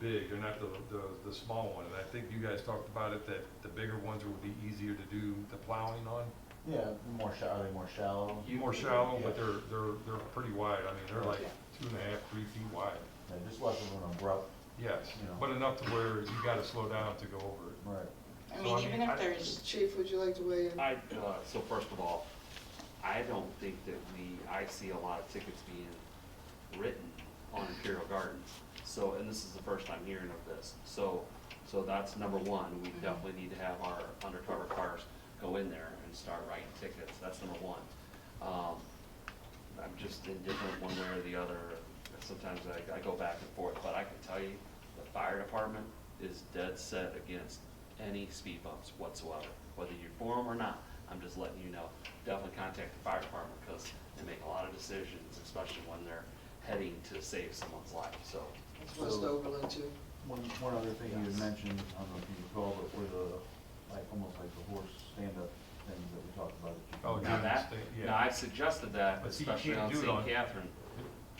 big, they're not the, the, the small one, and I think you guys talked about it, that the bigger ones would be easier to do the plowing on. Yeah, more shallow, are they more shallow? More shallow, but Yeah. they're, they're, they're pretty wide, I mean, they're like Yeah. two and a half, three feet wide, Yeah, just less of an abrupt, yes, Yeah. but enough to where you gotta slow down to go over it. right. I So, mean, I even mean, I- if there's, Chief, would you like to weigh in? I, uh, so first of all, I don't think that we, I see a lot of tickets being written on Imperial Gardens. So, and this is the first time hearing of this, so, so that's number one, we definitely need to have our undercover cars go in there and start writing tickets, that's number one. Um, I'm just indifferent one way or the other, sometimes I, I go back and forth, but I can tell you, the fire department is dead set against any speed bumps whatsoever, whether you're for them or not, I'm just letting you know, definitely contact the fire department, because they make a lot of decisions, especially when they're heading to save someone's life, so. It's West Overland too. One, one other thing you had Yes. mentioned, I don't know if you recall, but were the, like, almost like the horse stand-up things that we talked about. that you- Oh, Now Yeah, that, it's the- yeah. now I've suggested that, But see, you especially can't on do it on- St. Catherine,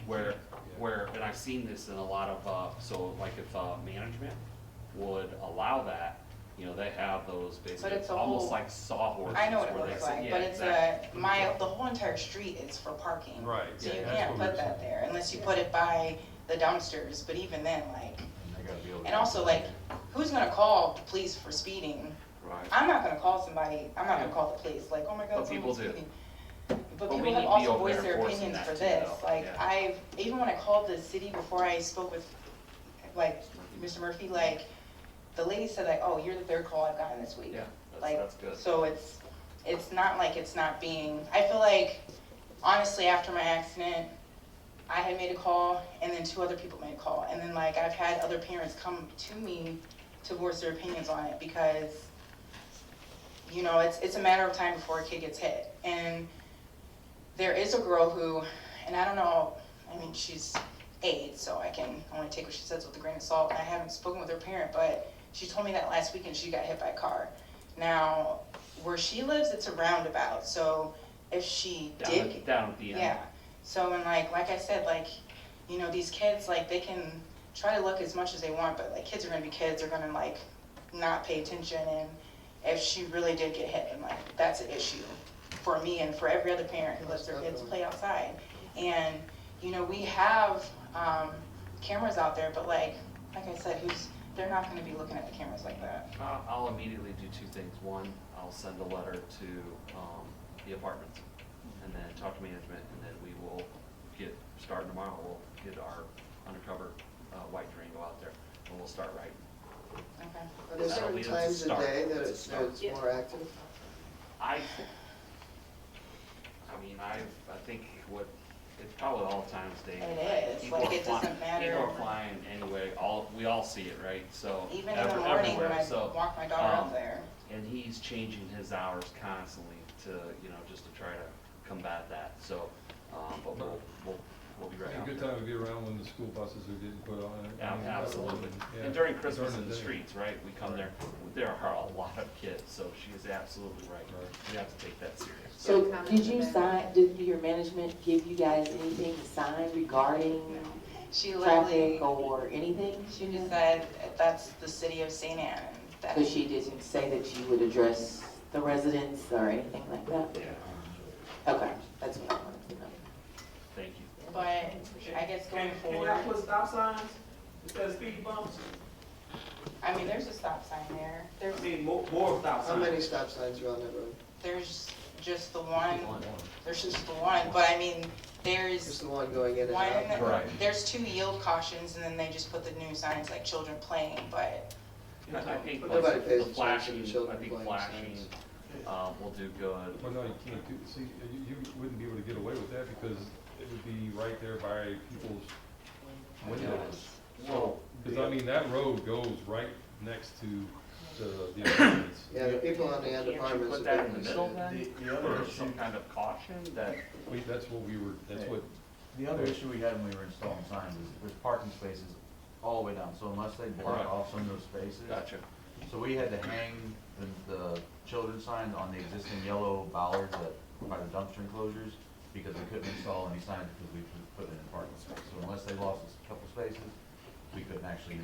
where, Yeah. where, and I've seen this in a lot of, uh, so like if, uh, management would allow that, you know, they have those But basically, it's a almost whole- like sawhorses. I know what it where they looks sit- like, yeah, but it's a, exactly. my, the whole entire street is for parking. Right, So you yeah, that's can't what put we're that saying. there unless you put it by the dumpsters, but even then, like, And they gotta be able to. and also like, who's gonna call the police for speeding? Right. I'm not gonna call somebody, I'm not gonna call the police, like, oh my But god, someone's people do. speeding. But But we people need to have be also over there voiced their enforcing that opinions for too, this, though. like, Yeah. I've, even when I called the city before I spoke with, like, Murphy. Mr. Murphy, like, the lady said like, oh, you're the third call I've gotten this week. Yeah, that's- Like, that's good. So it's, it's not like it's not being, I feel like, honestly, after my accident, I had made a call, and then two other people made a call, and then like, I've had other parents come to me to voice their opinions on it, because, you know, it's, it's a matter of time before a kid gets hit, and there is a girl who, and I don't know, I mean, she's eight, so I can only take what she says with a grain of salt, and I haven't spoken with her parent, but she told me that last weekend she got hit by a car. Now, where she lives, it's a roundabout, so if she Down did. at- down at the end. Yeah, so, and like, like I said, like, you know, these kids, like, they can try to look as much as they want, but like, kids are gonna be kids, they're gonna like, not pay attention, and if she really did get hit, and like, that's an issue for me and for every other parent who lets their kids play outside. And, you know, we have, um, cameras out there, but like, like I said, who's, they're not gonna be looking at the cameras like that. I'll I'll immediately do two things. One, I'll send a letter to um, the apartments and then talk to management and then we will get, starting tomorrow, we'll get our undercover uh, white Durango out there and we'll start writing. Okay. Are there That'll certain be the times of start. day that It's a it's, that start. it's more active? I, I mean, I, I think what, it's probably all times day. and It night. is, People like, are it doesn't flying- matter. People are flying anyway, all, we all see it, right? So. Even in the ever- morning when everywhere. I So, walk my daughter um, out there. and he's changing his hours constantly to, you know, just to try to combat that, so, um, but we'll, we'll, we'll be right It'd out be a good there. time to be around when the school buses are getting put on. and- Yeah, and- absolutely, yeah, and during Christmas during in the day. streets, right, we come there, there are a lot of kids, so she is absolutely right, Right. we have to take that serious. So did you sign, did your management give you guys anything to sign regarding She literally, traffic or anything? she just said, that's the city of St. Anne, that Because she didn't say that you would address the residents or anything like that? Yeah, Okay, that's what I wanted to know. thank you. But I guess Can, going can forward, y'all put stop signs instead of speed bumps? I mean, there's a stop sign there. There's, I mean, more, more stop How signs. many stop signs are on that road? there's just the one, One. there's just the one, but I mean, Just there's the one going in and one, out? Right. there's two yield cautions and then they just put the new signs like children playing, but I I think But nobody the pays attention to flashing, I children think playing flashing, signs. uh, will do good. Well, no, you can't do, see, you, you wouldn't be able to get away with that because it would be right there by people's windows. Well, Cause I mean, that road goes right next to the, the apartments. Yeah, the people on the end can't you apartments. put are that in the being middle considered. then, The- the other or some issue- kind of caution that Wait, that's what we were, that's what, The other issue we had when we were installing signs is there's parking spaces all the way down, so unless they Right. block off some of those spaces. Gotcha. So we had to hang the, the children's signs on the existing yellow bollards that, by the dumpster enclosures, because we couldn't install any signs because we put it in parking space. So unless they lost a couple spaces, we couldn't actually